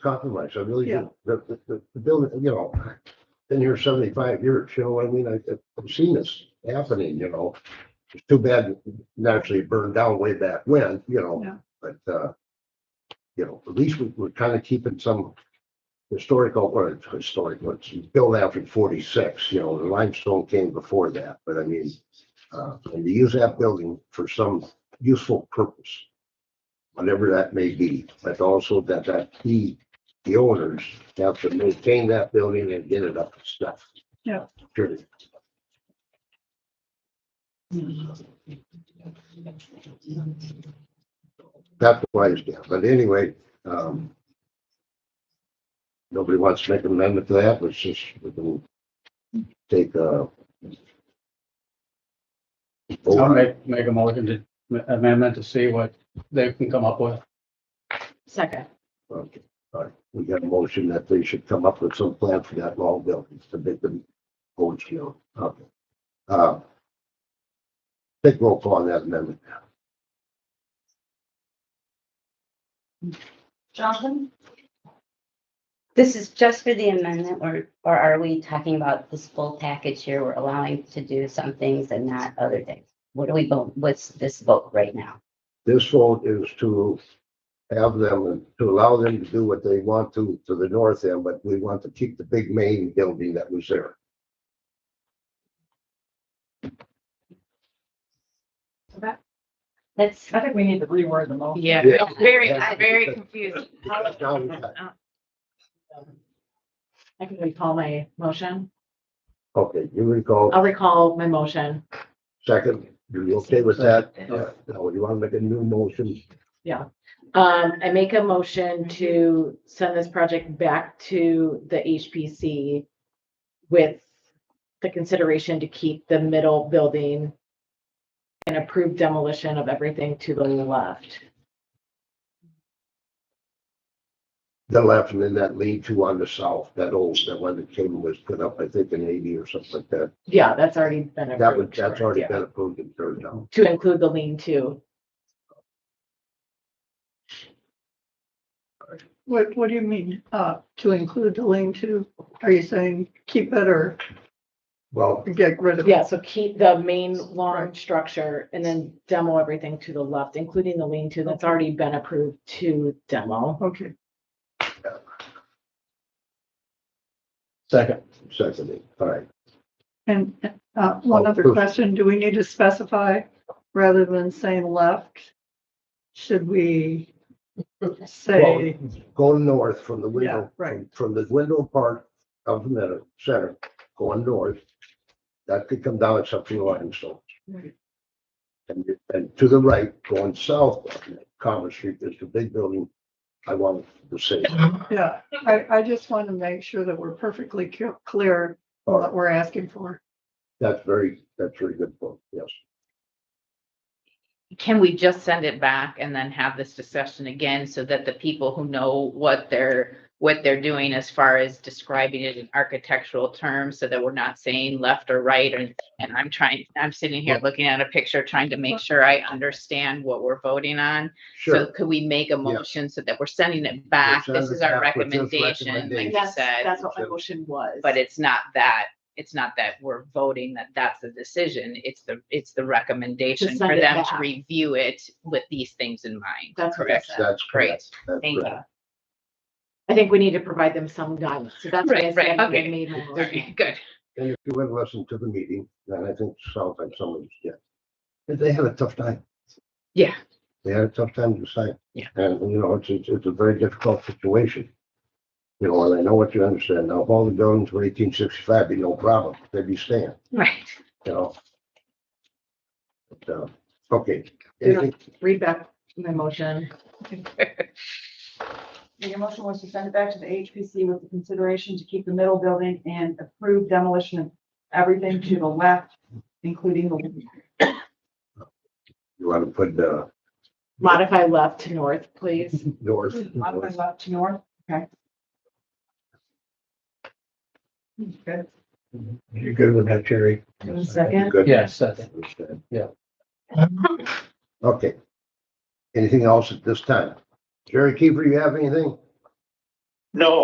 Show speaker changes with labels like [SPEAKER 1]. [SPEAKER 1] compromise, I really
[SPEAKER 2] Yeah.
[SPEAKER 1] do. The, the, the, the building, you know, been here seventy-five years, Joe, I mean, I, I've seen this happening, you know. It's too bad it naturally burned down way back when, you
[SPEAKER 2] Yeah.
[SPEAKER 1] know, but, uh, you know, at least we, we're kind of keeping some historical, or it's historic, what's built after forty-six, you know, the limestone came before that, but I mean, uh, and to use that building for some useful purpose whatever that may be, but also that that he, the owners have to maintain that building and get it up to stuff.
[SPEAKER 2] Yeah.
[SPEAKER 1] Period. That's why it's down, but anyway, um. Nobody wants to make an amendment to that, let's just, we can take uh
[SPEAKER 3] I'll make, make a motion to amendment to see what they can come up with.
[SPEAKER 4] Second.
[SPEAKER 1] Okay, all right, we got a motion that they should come up with some plan for that long building to make them old scale, okay. Uh, Take roll call on that amendment.
[SPEAKER 4] Jonathan? This is just for the amendment, or, or are we talking about this full package here? We're allowing to do some things and not other things. What do we vote, what's this vote right now?
[SPEAKER 1] This vote is to have them, to allow them to do what they want to, to the north end, but we want to keep the big main building that was there.
[SPEAKER 4] That's,
[SPEAKER 5] I think we need to reword the motion.
[SPEAKER 6] Yeah,
[SPEAKER 1] Yeah.
[SPEAKER 6] it's very,
[SPEAKER 1] Yeah.
[SPEAKER 6] I'm very confused.
[SPEAKER 1] Because now we got-
[SPEAKER 5] I can recall my motion.
[SPEAKER 1] Okay, you recall,
[SPEAKER 5] I'll recall my motion.
[SPEAKER 1] second, you okay with that? Now, you want to make a new motion?
[SPEAKER 5] Um, I make a motion to send this project back to the HPC with the consideration to keep the middle building and approve demolition of everything to the left.
[SPEAKER 1] The left and then that lead to on the south, that old, that one that came was put up, I think in eighty or something like that.
[SPEAKER 5] Yeah, that's already been
[SPEAKER 1] That was,
[SPEAKER 5] approved.
[SPEAKER 1] that's already
[SPEAKER 5] yeah.
[SPEAKER 1] been approved and turned down.
[SPEAKER 5] To include the lean-to.
[SPEAKER 2] What, what do you mean, uh, to include the lean-to? Are you saying keep it or
[SPEAKER 1] Well,
[SPEAKER 2] get rid of it?
[SPEAKER 5] Yeah, so keep the main long structure and then demo everything to the left, including the lean-to that's already been approved to demo.
[SPEAKER 2] Okay,
[SPEAKER 3] Second,
[SPEAKER 1] secondly, all right,
[SPEAKER 2] and, uh, one
[SPEAKER 1] Oh,
[SPEAKER 2] other
[SPEAKER 1] first.
[SPEAKER 2] question, do we need to specify rather than saying left? Should we say,
[SPEAKER 1] going north from the
[SPEAKER 2] yeah,
[SPEAKER 1] window,
[SPEAKER 2] right,
[SPEAKER 1] from the window part of the middle, center, going north. That could come down except for the limestone.
[SPEAKER 2] Right.
[SPEAKER 1] And, and to the right, going south, Commerce Street, there's the big building. I want to say,
[SPEAKER 2] yeah. I, I just want to make sure that we're perfectly cl- clear on what we're asking for.
[SPEAKER 1] that's very, that's very good point, yes.
[SPEAKER 6] Can we just send it back and then have this discussion again so that the people who know what they're, what they're doing as far as describing it in architectural terms so that we're not saying left or right and, and I'm trying, I'm sitting here looking at a picture, trying to make sure I understand what we're voting on. So
[SPEAKER 1] Sure.
[SPEAKER 6] could we make a motion so that we're sending it back?
[SPEAKER 1] sending
[SPEAKER 6] This is
[SPEAKER 1] it
[SPEAKER 6] our
[SPEAKER 1] back with this
[SPEAKER 6] recommendation, like you
[SPEAKER 5] That's,
[SPEAKER 6] said.
[SPEAKER 5] that's what my motion was.
[SPEAKER 6] But it's not that, it's not that we're voting that that's the decision, it's the, it's the recommendation for
[SPEAKER 5] send it
[SPEAKER 6] them to
[SPEAKER 5] back.
[SPEAKER 6] review it with these things in mind.
[SPEAKER 5] That's what I
[SPEAKER 6] Correct.
[SPEAKER 5] said.
[SPEAKER 1] That's
[SPEAKER 6] Great,
[SPEAKER 1] correct. That's
[SPEAKER 6] thank
[SPEAKER 1] correct.
[SPEAKER 6] you.
[SPEAKER 5] I think we need to provide them some guidance. So that's what I
[SPEAKER 6] Right, right,
[SPEAKER 5] said. when I
[SPEAKER 6] okay.
[SPEAKER 5] made my
[SPEAKER 6] Okay,
[SPEAKER 5] motion.
[SPEAKER 6] Good,
[SPEAKER 1] And if you went and listened to the meeting, then I think sometimes someone's, yeah. But They had a tough time.
[SPEAKER 6] Yeah.
[SPEAKER 1] They had a tough time to decide.
[SPEAKER 6] Yeah.
[SPEAKER 1] And, you know, it's, it's, it's a very difficult situation. You know, and I know what you understand. Now, if all the buildings were eighteen sixty-five, be no problem. They'd be staying,
[SPEAKER 6] right.
[SPEAKER 1] you know? But, uh, okay.
[SPEAKER 5] Yeah.
[SPEAKER 1] Anything-
[SPEAKER 5] Read back my motion.
[SPEAKER 7] Your motion was to send it back to the HPC with the consideration to keep the middle building and approve demolition of everything to the left, including the
[SPEAKER 1] You want to put, uh,
[SPEAKER 5] Modify left to north, please.
[SPEAKER 1] north,
[SPEAKER 7] modified
[SPEAKER 1] north,
[SPEAKER 7] left to north. Okay. Good.
[SPEAKER 3] you're good with that, Jerry?
[SPEAKER 5] Second,
[SPEAKER 1] good?
[SPEAKER 3] Yes, second.
[SPEAKER 1] Understand.
[SPEAKER 3] Yeah.
[SPEAKER 1] Okay. Anything else at this time? Jerry Kiefer, you have anything?
[SPEAKER 8] No,